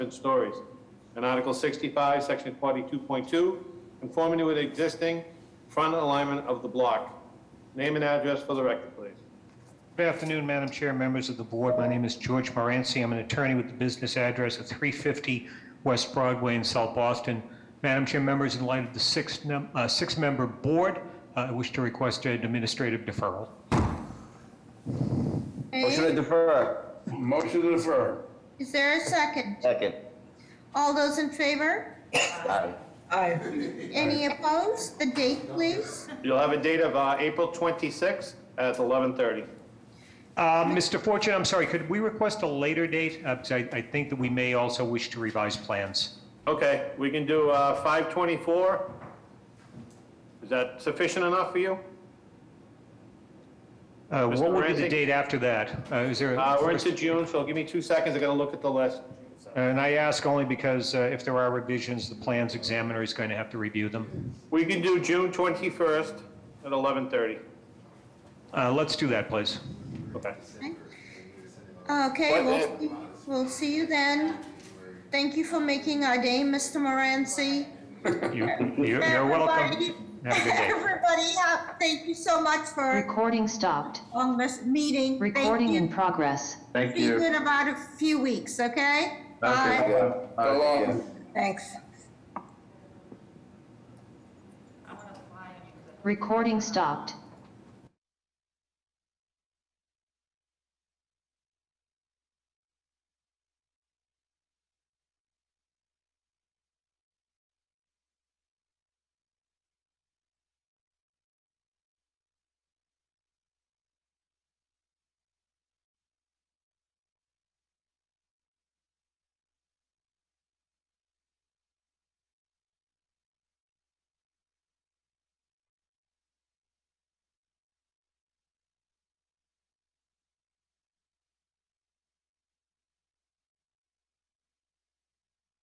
and stories. And Article 65, Section 42.2, conformity with existing front alignment of the block. Name and address for the record, please. Good afternoon, Madam Chair, members of the board. My name is George Moranci. I'm an attorney with the business address of 350 West Broadway in South Boston. Madam Chair, members, in light of the six num- uh, six-member board, uh, I wish to request an administrative deferral. Motion to Okay, defer. Motion to defer. is there a second? Second. All those in favor? Aye. Aye. Any opposed? The date, please. You'll have a date of uh, April 26th at 11:30. Uh, Mr. Fortune, I'm sorry, could we request a later date? Uh, Because I I think that we may also wish to revise plans. Okay, we can do uh, 5:24. Is that sufficient enough for you? Uh, Mr. What would be the Moranci? date after that? Uh, Is there? a- Uh, We're into June, so give me two seconds, I gotta look at the list. And I ask only because uh, if there are revisions, the plans examiner is going to have to review them. We can do June 21st at 11:30. Uh, Let's do that, please. Okay. Okay, we'll, we'll see you then. Thank you for making our day, Mr. Moranci. You- You're you're welcome. Have a good day. Everybody, uh, thank you so much for Recording stopped. a long this meeting. Thank Recording you. in progress. Thank Be you. good about a few weeks, okay? Okay, Bye. good. So All long. right, Thanks. Recording stopped.